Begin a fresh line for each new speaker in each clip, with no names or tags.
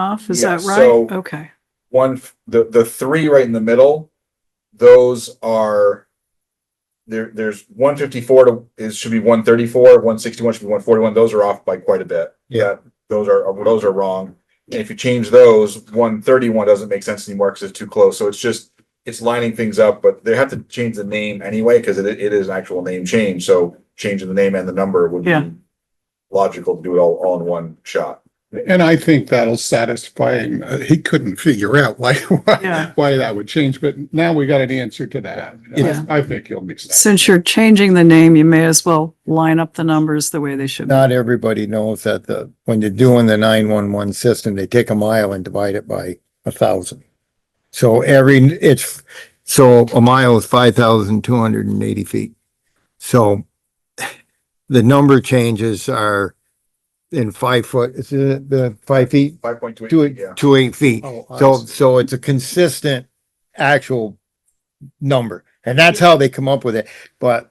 off, is
Yeah,
that
so-
right? Okay,
one f- the the three right in the middle those are there there's 154 to is should be 134 161 should be 141 those are off by quite a bit
Yeah.
That- those are those are wrong and if you change those 131 doesn't make sense anymore because it's too close so it's just it's lining things up but they have to change the name anyway because it, it is an actual name change so changing the name and the number would
Yeah.
be logical to do it all, all in one shot
And I think that'll satisfy him. Uh, He couldn't figure out why,
Yeah.
why, why that would change, but now we got an answer to that.
Yeah.
I I think he'll be satisfied.
since you're changing the name, you may as well line up the numbers the way they should. be.
not everybody knows that the, when you're doing the nine-one-one system, they take a mile and divide it by a thousand. So every, it's, so a mile is five thousand two hundred and eighty feet. So the number changes are in five foot, is it the five feet,
5.2
two,
yeah
two eight feet?
Oh, I
So,
see.
so it's a consistent actual number, and that's how they come up with it. But,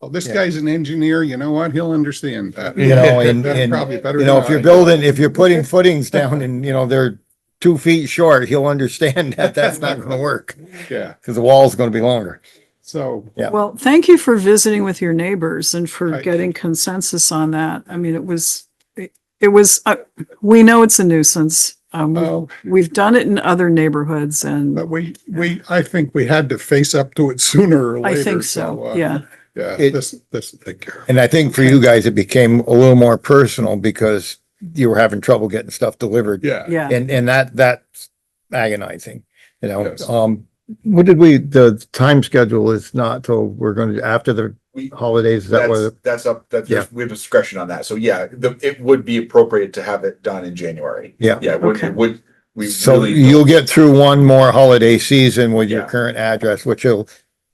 Well, Oh, this
Yeah.
guy's an engineer, you know what? He'll understand that.
You know, and-
That's
and,
Probably better.
you know,
than
if you're
I.
building, if you're putting footings down and, you know, they're two feet short, he'll understand that that's not gonna work,
Yeah,
because the wall's gonna be longer.
so,
Yeah.
Well, thank you for visiting with your neighbors and for
Right.
getting consensus on that. I mean, it was, it it was, uh, we know it's a nuisance. Um, we've-
well,
we've done it in other neighborhoods and
Oh. but we, we, I think we had to face up to it sooner or
I
later.
think
uh,
so, yeah.
Yeah,
It-
this, this, thank you.
And I think for you guys, it became a little more personal because you were having trouble getting stuff delivered.
Yeah.
Yeah,
And, and that, that's agonizing, you know,
Yes.
um, what did we, the time schedule is not till we're gonna, after the
we
holidays, is that
That's,
was,
that's up, that's,
Yeah.
we have discretion on that. So yeah, the, it would be appropriate to have it done in January.
Yeah.
Yeah, it would,
Okay.
it would, we
so
really,
you'll get through one more holiday season with your
Yeah.
current address, which will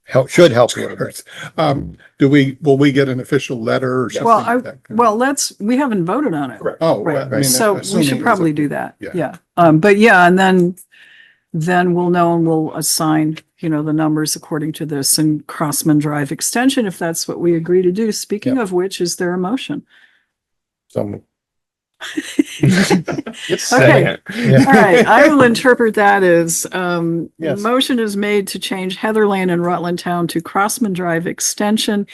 help, should help you. a bit.
Um, do we, will we get an official letter or something?
Well, I-
like that?
well, let's, we haven't voted on it.
Correct.
Oh. well, I
Right,
mean,
so we
assuming
should
it's
probably
a-
do that,
Yeah.
yeah. Um, but yeah, and then, then we'll know and we'll assign, you know, the numbers according to this and Crossman Drive extension, if that's what we agree to do. Speaking of which, is there a motion?
So,
Okay,
yeah.
all right, I will interpret that as, um, the
Yes.
motion is made to change Heather Lane and Rutland Town to Crossman Drive extension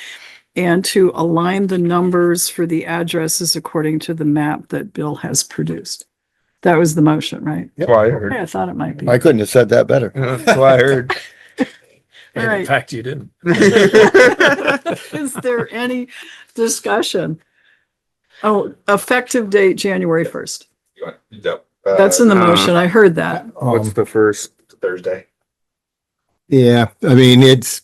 and to align the numbers for the addresses according to the map that Bill has produced. That was the motion, right?
Yep.
Well, I heard.
Yeah, I thought it might be.
I couldn't have said that better.
That's what I heard.
All
And
right.
in fact, you didn't.
Is there any discussion? Oh, effective date, January first.
Uh,
That's in the
Uh-huh.
motion. I heard that.
Um,
um, the first?
Thursday.
yeah, I mean, it's,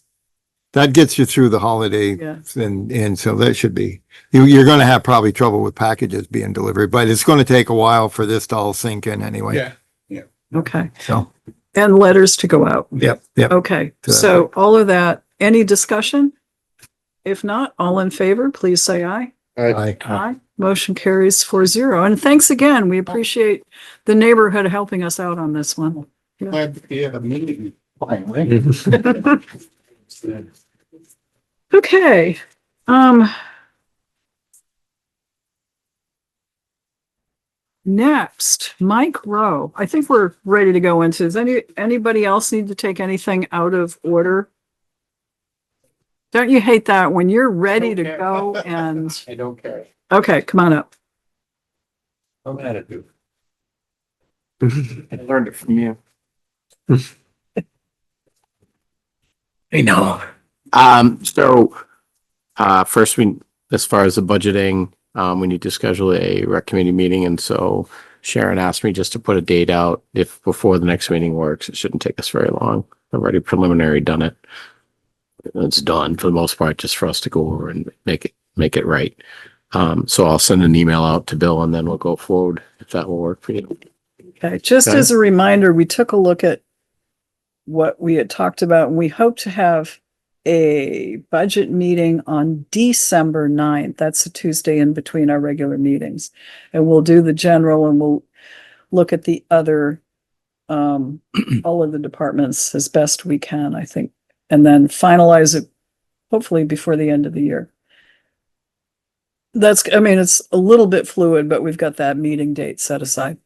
that gets you through the holiday
Yeah.
and, and so that should be, you, you're gonna have probably trouble with packages being delivered, but it's gonna take a while for this to all sink in anyway.
Yeah,
Okay.
So,
And letters to go out.
yep, yep.
Okay. So all of that, any discussion? If not, all in favor, please say aye.
I,
Aye. Motion carries four zero. And thanks again. We appreciate the neighborhood helping us out on this one.
glad that we had a meeting finally.
Mm-hmm. Okay, um. Next, Mike Rowe. I think we're ready to go into, does any, anybody else need to take anything out of order? Don't you hate that when you're ready to
Okay.
go and,
I don't care.
okay, come on up.
I'm attitude. I learned it from you. I know. Um, so, uh, first we, as far as the budgeting, um, we need to schedule a rec committee meeting. And so Sharon asked me just to put a date out if before the next meeting works. It shouldn't take us very long. I've already preliminary done it. It's done for the most part, just for us to go over and make it, make it right. Um, so I'll send an email out to Bill and then we'll go forward if that will work for you.
Okay, just
Okay.
as a reminder, we took a look at what we had talked about, and we hope to have a budget meeting on December 9th. That's a Tuesday in between our regular meetings. And we'll do the general and we'll look at the other, um, all of the departments as best we can, I think, and then finalize it hopefully before the end of the year. That's, I mean, it's a little bit fluid, but we've got that meeting date set aside.